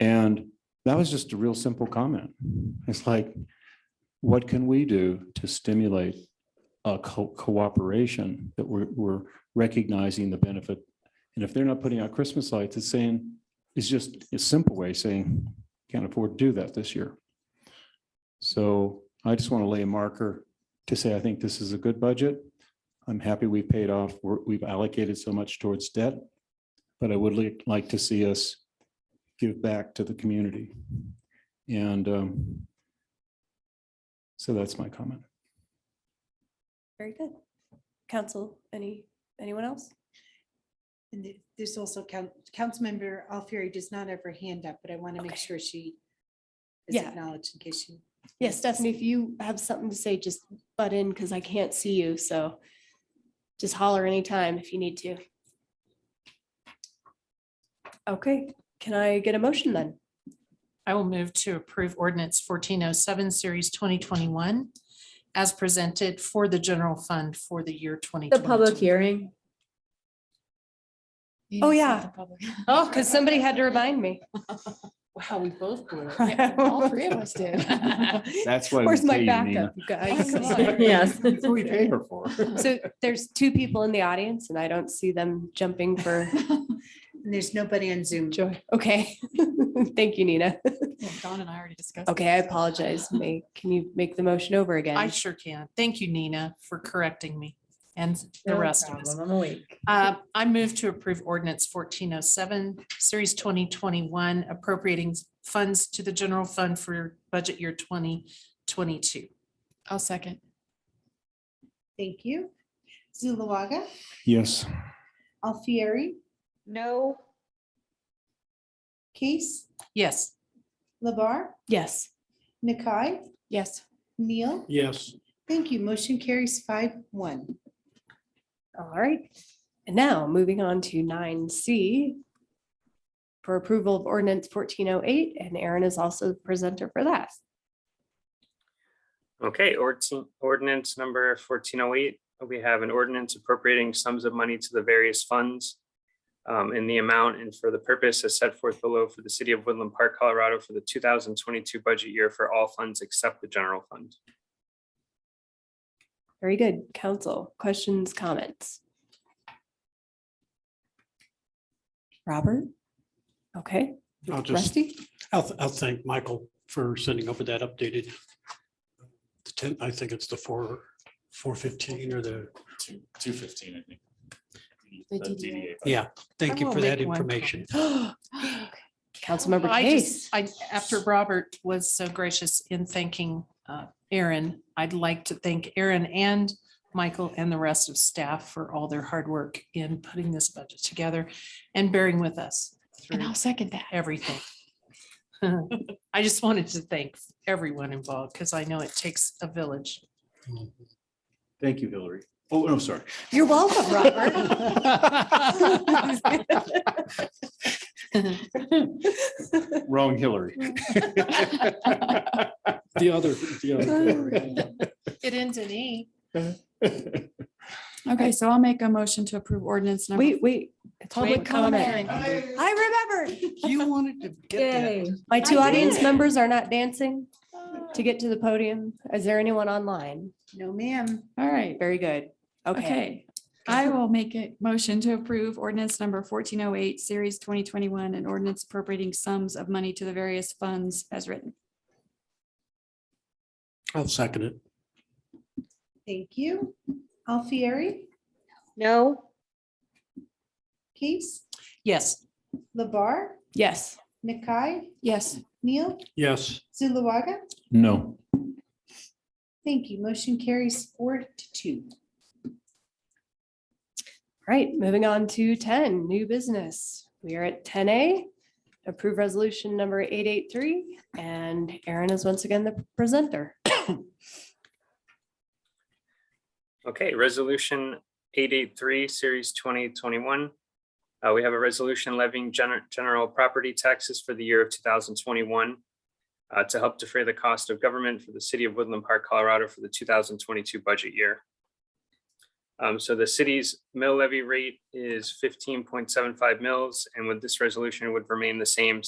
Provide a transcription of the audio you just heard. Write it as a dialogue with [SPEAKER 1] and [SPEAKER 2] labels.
[SPEAKER 1] And that was just a real simple comment. It's like, what can we do to stimulate uh, co- cooperation that we're, we're recognizing the benefit? And if they're not putting out Christmas lights, it's saying, it's just a simple way of saying, can't afford to do that this year. So I just want to lay a marker to say, I think this is a good budget. I'm happy we paid off, we're- we've allocated so much towards debt. But I would li- like to see us give back to the community. And um, so that's my comment.
[SPEAKER 2] Very good. Council, any, anyone else?
[SPEAKER 3] And th- this also count, Councilmember Alfieri does not have her hand up, but I want to
[SPEAKER 2] Okay.
[SPEAKER 3] make sure she is
[SPEAKER 4] Yeah.
[SPEAKER 3] acknowledged in case she.
[SPEAKER 4] Yeah, Stephanie, if you have something to say, just butt in because I can't see you. So just holler anytime if you need to.
[SPEAKER 2] Okay, can I get a motion then?
[SPEAKER 5] I will move to approve ordinance fourteen oh seven, series twenty twenty-one as presented for the general fund for the year twenty.
[SPEAKER 6] The public hearing.
[SPEAKER 2] Oh, yeah. Oh, because somebody had to remind me.
[SPEAKER 5] Wow, we both blew it.
[SPEAKER 2] Yeah, all three
[SPEAKER 5] of us did.
[SPEAKER 1] That's why.
[SPEAKER 2] Where's my backup, you guys?
[SPEAKER 5] Oh, come on.
[SPEAKER 6] Yes.
[SPEAKER 1] We pay her for.
[SPEAKER 4] So there's two people in the audience and I don't see them jumping for
[SPEAKER 3] And there's nobody on Zoom.
[SPEAKER 4] joy. Okay. Thank you, Nina.
[SPEAKER 5] Don and I already discussed.
[SPEAKER 4] Okay, I apologize. May, can you make the motion over again?
[SPEAKER 5] I sure can. Thank you, Nina, for correcting me and the
[SPEAKER 6] No
[SPEAKER 5] rest of us.
[SPEAKER 6] problem, I'm awake.
[SPEAKER 5] Uh, I move to approve ordinance fourteen oh seven, series twenty twenty-one, appropriating funds to the general fund for budget year twenty twenty-two. I'll second.
[SPEAKER 3] Thank you. Zulawaga,
[SPEAKER 1] Yes.
[SPEAKER 3] Alfieri,
[SPEAKER 7] No.
[SPEAKER 3] Case,
[SPEAKER 5] Yes.
[SPEAKER 3] Labar,
[SPEAKER 4] Yes.
[SPEAKER 3] Nakai,
[SPEAKER 4] Yes.
[SPEAKER 3] Neil.
[SPEAKER 1] Yes.
[SPEAKER 3] Thank you. Motion carries five one.
[SPEAKER 4] All right, and now moving on to nine C. For approval of ordinance fourteen oh eight, and Aaron is also the presenter for that.
[SPEAKER 8] Okay, ordin- ordinance number fourteen oh eight, we have an ordinance appropriating sums of money to the various funds um, in the amount and for the purpose as set forth below for the city of Woodland Park, Colorado for the two thousand twenty-two budget year for all funds except the general fund.
[SPEAKER 4] Very good, council, questions, comments? Robert? Okay,
[SPEAKER 9] I'll just,
[SPEAKER 4] Rusty?
[SPEAKER 9] I'll, th- I'll thank Michael for sending over that updated. The ten, I think it's the four, four fifteen or the,
[SPEAKER 10] two, two fifteen, I think.
[SPEAKER 5] The
[SPEAKER 10] The
[SPEAKER 5] DDA.
[SPEAKER 10] DDA.
[SPEAKER 9] yeah, thank you
[SPEAKER 5] will
[SPEAKER 9] for that
[SPEAKER 5] make one
[SPEAKER 9] information.
[SPEAKER 4] Councilmember
[SPEAKER 5] I
[SPEAKER 4] Case?
[SPEAKER 5] just, I, after Robert was so gracious in thanking uh, Aaron, I'd like to thank Aaron and Michael and the rest of staff for all their hard work in putting this budget together and bearing with us. And I'll second that. Everything. I just wanted to thank everyone involved because I know it takes a village.
[SPEAKER 10] Thank you, Hillary. Oh, no, sorry.
[SPEAKER 2] You're welcome, Robert.
[SPEAKER 1] Wrong Hillary.
[SPEAKER 9] The other, the other.
[SPEAKER 5] It ends in E.
[SPEAKER 7] Okay, so I'll make a motion to approve ordinance number.
[SPEAKER 4] Wait, wait, public
[SPEAKER 5] Wait,
[SPEAKER 4] comment.
[SPEAKER 2] I remembered.
[SPEAKER 9] You wanted to get that.
[SPEAKER 6] Yay.
[SPEAKER 4] My two
[SPEAKER 3] I
[SPEAKER 4] audience
[SPEAKER 3] did.
[SPEAKER 4] members are not dancing to get to the podium. Is there anyone online?
[SPEAKER 3] No, ma'am.
[SPEAKER 7] All right,
[SPEAKER 4] Very good. Okay,
[SPEAKER 7] okay. I will make a motion to approve ordinance number fourteen oh eight, series twenty twenty-one, and ordinance appropriating sums of money to the various funds as written.
[SPEAKER 9] I'll second it.
[SPEAKER 3] Thank you. Alfieri,
[SPEAKER 7] No.
[SPEAKER 3] Case,
[SPEAKER 5] Yes.
[SPEAKER 3] Labar,
[SPEAKER 4] yes.
[SPEAKER 3] Nakai,
[SPEAKER 7] Yes.
[SPEAKER 3] Neil,
[SPEAKER 9] Yes,
[SPEAKER 3] Zulawaga.
[SPEAKER 1] No.
[SPEAKER 3] Thank you. Motion carries four to two.
[SPEAKER 4] Right, moving on to ten, new business. We are at ten A. Approve resolution number eight eight three, and Erin is once again the presenter.
[SPEAKER 8] Okay, resolution eight eight three, series twenty twenty-one. Uh, we have a resolution levying gener- general property taxes for the year of two thousand twenty-one uh, to help defray the cost of government for the city of Woodland Park, Colorado for the two thousand twenty-two budget year. Um, so the city's mill levy rate is fifteen point seven five mills, and with this resolution, it would remain the same